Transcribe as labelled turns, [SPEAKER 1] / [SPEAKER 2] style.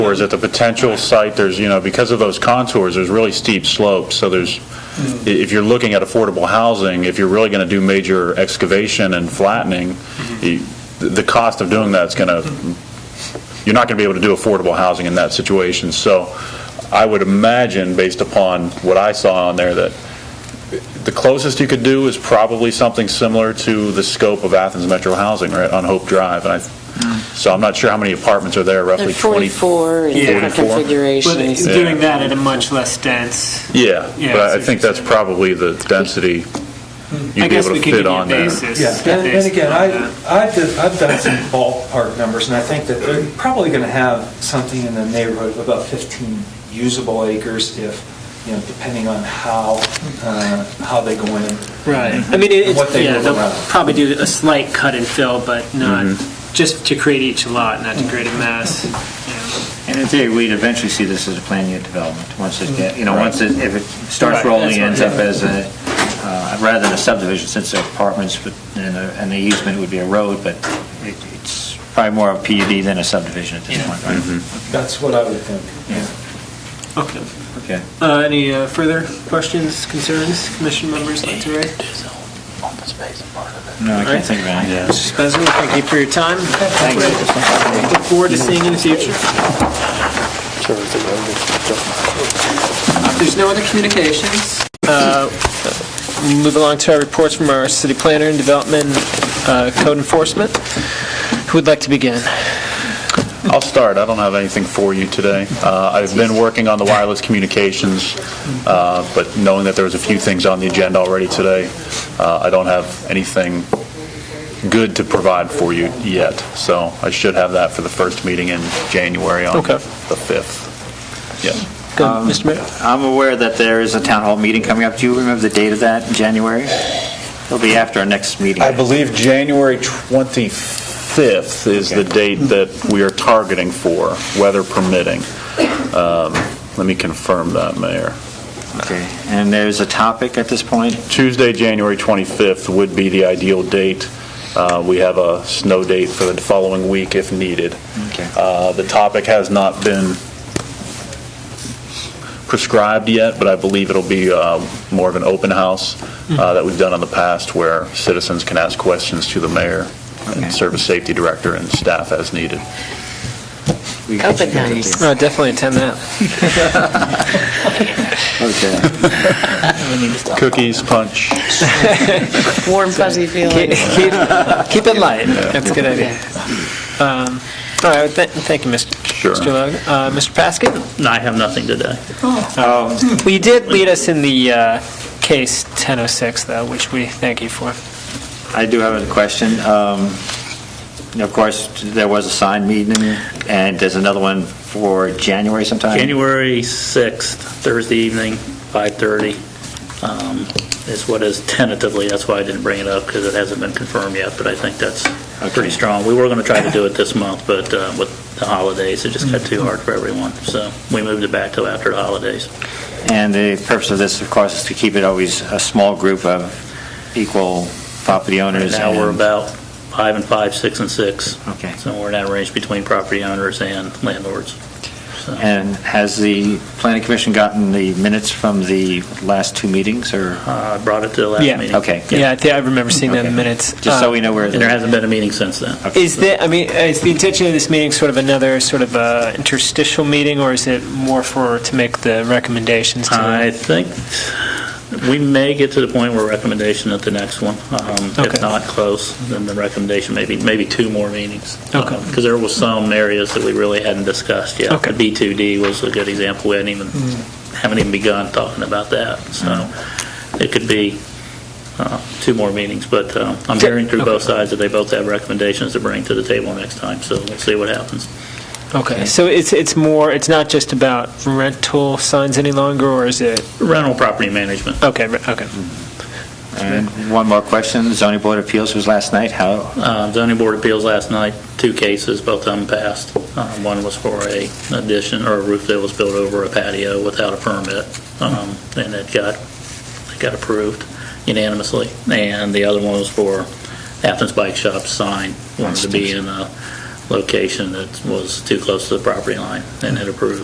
[SPEAKER 1] Or is at the potential site, there's, you know, because of those contours, there's really steep slopes, so there's, i- if you're looking at affordable housing, if you're really going to do major excavation and flattening, the, the cost of doing that's going to, you're not going to be able to do affordable housing in that situation. So I would imagine, based upon what I saw on there, that the closest you could do is probably something similar to the scope of Athens Metro Housing, right, on Hope Drive. And I, so I'm not sure how many apartments are there,
[SPEAKER 2] They're
[SPEAKER 1] roughly 20.
[SPEAKER 2] 44 in different
[SPEAKER 1] 44.
[SPEAKER 2] configurations.
[SPEAKER 3] But it's doing that at a much less dense.
[SPEAKER 1] Yeah,
[SPEAKER 3] Yeah,
[SPEAKER 1] but I- I
[SPEAKER 3] so
[SPEAKER 1] think
[SPEAKER 3] just-
[SPEAKER 1] that's probably the density
[SPEAKER 3] I
[SPEAKER 1] you'd be
[SPEAKER 3] guess
[SPEAKER 1] able
[SPEAKER 3] we
[SPEAKER 1] to
[SPEAKER 3] could give
[SPEAKER 1] fit
[SPEAKER 3] you a
[SPEAKER 1] on there.
[SPEAKER 3] basis.
[SPEAKER 4] Yeah,
[SPEAKER 3] a
[SPEAKER 4] and and
[SPEAKER 3] basis
[SPEAKER 4] again,
[SPEAKER 3] on
[SPEAKER 4] I,
[SPEAKER 3] that.
[SPEAKER 4] I've did- I've done some ballpark numbers, and I think that they're probably going to have something in the neighborhood of about 15 usable acres if, you know, depending on how, uh, how they go in.
[SPEAKER 3] Right. I mean, it-
[SPEAKER 4] What
[SPEAKER 3] it's,
[SPEAKER 4] they
[SPEAKER 3] yeah,
[SPEAKER 4] move
[SPEAKER 3] they'll
[SPEAKER 4] around.
[SPEAKER 3] probably do a slight cut and fill, but not,
[SPEAKER 1] Mm-hmm.
[SPEAKER 3] just to create each lot, not to create a mass.
[SPEAKER 5] And in theory, we'd eventually see this as a planned unit development, once it, get- you know, once it, if it starts
[SPEAKER 3] Right,
[SPEAKER 5] rolling,
[SPEAKER 3] that's
[SPEAKER 5] ends
[SPEAKER 3] right.
[SPEAKER 5] up as a, uh, rather than a subdivision, since they're apartments, but, and a- and the easement would be a road, but it- it's probably more of a PUD than a subdivision at this
[SPEAKER 3] Yeah.
[SPEAKER 5] point,
[SPEAKER 1] Mm-hmm.
[SPEAKER 5] right?
[SPEAKER 4] That's what I would think.
[SPEAKER 5] Yeah.
[SPEAKER 3] Okay.
[SPEAKER 5] Okay.
[SPEAKER 3] Uh, Any uh, further questions, concerns, commission members like to raise?
[SPEAKER 5] No, I can't think of any.
[SPEAKER 1] Yeah.
[SPEAKER 3] Mr. Spencer, thank you for your time.
[SPEAKER 5] Thank you.
[SPEAKER 3] Look forward to seeing you in the future. If there's no other communications, uh, we move along to our reports from our city planner and development uh, code enforcement. Who would like to begin?
[SPEAKER 1] I'll start. I don't have anything for you today. Uh, I've been working on the wireless communications, uh, but knowing that there was a few things on the agenda already today, uh, I don't have anything good to provide for you yet. So I should have that for the first meeting in January on
[SPEAKER 3] Okay.
[SPEAKER 1] the 5th. Yeah.
[SPEAKER 3] Go, Mr. Mayor?
[SPEAKER 5] I'm aware that there is a town hall meeting coming up. Do you remember the date of that, in January? It'll be after our next meeting.
[SPEAKER 1] I believe January 25th is the date that we are targeting for, weather permitting. Um, Let me confirm that, Mayor.
[SPEAKER 5] Okay. And there's a topic at this point?
[SPEAKER 1] Tuesday, January 25th would be the ideal date. Uh, We have a snow date for the following week if needed.
[SPEAKER 5] Okay.
[SPEAKER 1] Uh, The topic has not been prescribed yet, but I believe it'll be uh, more of an open house
[SPEAKER 5] Mm-hmm.
[SPEAKER 1] uh, that we've done in the past where citizens can ask questions to the mayor
[SPEAKER 5] Okay.
[SPEAKER 1] and service safety director and staff as needed.
[SPEAKER 5] We-
[SPEAKER 2] Open house.
[SPEAKER 3] Oh, definitely attend that.
[SPEAKER 5] Okay.
[SPEAKER 1] Cookies, punch.
[SPEAKER 2] Warm fuzzy feeling.
[SPEAKER 3] Keep it light. That's a good idea. Um, All right, thank thank you, Mr.
[SPEAKER 1] Sure.
[SPEAKER 3] Mr. Logan. Uh, Mr. Paskett?
[SPEAKER 6] No, I have nothing today.
[SPEAKER 5] Um,
[SPEAKER 3] Well, you did lead us in the uh, case 1006, though, which we thank you for.
[SPEAKER 5] I do have a question. Um, Of course, there was a signed meeting, and there's another one for January sometime?
[SPEAKER 6] January 6th, Thursday evening, 5:30, um, is what is tentatively, that's why I didn't bring it up, because it hasn't been confirmed yet, but I think that's
[SPEAKER 5] Okay.
[SPEAKER 6] pretty strong. We were going to try to do it this month, but uh, with the holidays, it just got too hard for everyone, so we moved it back till after the holidays.
[SPEAKER 5] And the purpose of this, of course, is to keep it always a small group of equal property owners.
[SPEAKER 6] Now we're
[SPEAKER 5] and-
[SPEAKER 6] about five and five, six and six,
[SPEAKER 5] Okay.
[SPEAKER 6] so we're in that range between property owners and landlords. So-
[SPEAKER 5] And has the planning commission gotten the minutes from the last two meetings, or,
[SPEAKER 6] Uh, I brought it to the last
[SPEAKER 3] Yeah.
[SPEAKER 6] meeting.
[SPEAKER 5] Okay.
[SPEAKER 3] Yeah, I think I remember seeing that in the
[SPEAKER 5] Okay.
[SPEAKER 3] minutes.
[SPEAKER 5] just so
[SPEAKER 3] Uh,
[SPEAKER 5] we know where?
[SPEAKER 6] And there hasn't been a meeting since then.
[SPEAKER 3] Is the, I mean, uh, is the intention of this meeting sort of another sort of uh, interstitial meeting, or is it more for, to make the recommendations
[SPEAKER 5] Uh,
[SPEAKER 3] to?
[SPEAKER 6] I think we may get to the point where recommendation at the next one. Um,
[SPEAKER 3] Okay.
[SPEAKER 6] If not close, then the recommendation, maybe, maybe two more meetings.
[SPEAKER 3] Okay.
[SPEAKER 6] Because there was some areas that we really hadn't discussed yet.
[SPEAKER 3] Okay. Hmm.
[SPEAKER 6] The B2D was a good example. We hadn't even, haven't even begun talking about that. So it could be uh, two more meetings. But uh, I'm hearing through both sides that they both have recommendations to bring to the table next time. So we'll see what happens.
[SPEAKER 3] Okay, so it's, it's more, it's not just about rental signs any longer, or is it,
[SPEAKER 6] Rental property management.
[SPEAKER 3] okay, re- okay.
[SPEAKER 5] And one more question, The zoning board of appeals was last night, how,
[SPEAKER 6] Uh, Zoning Board of Appeals last night, two cases, both of them passed. Uh, One was for a addition or a roof that was built over a patio without a permit, um, and it got, it got approved unanimously. And the other one was for Athens Bike Shop sign, wanted to be in a location that was too close to the property line and had approved.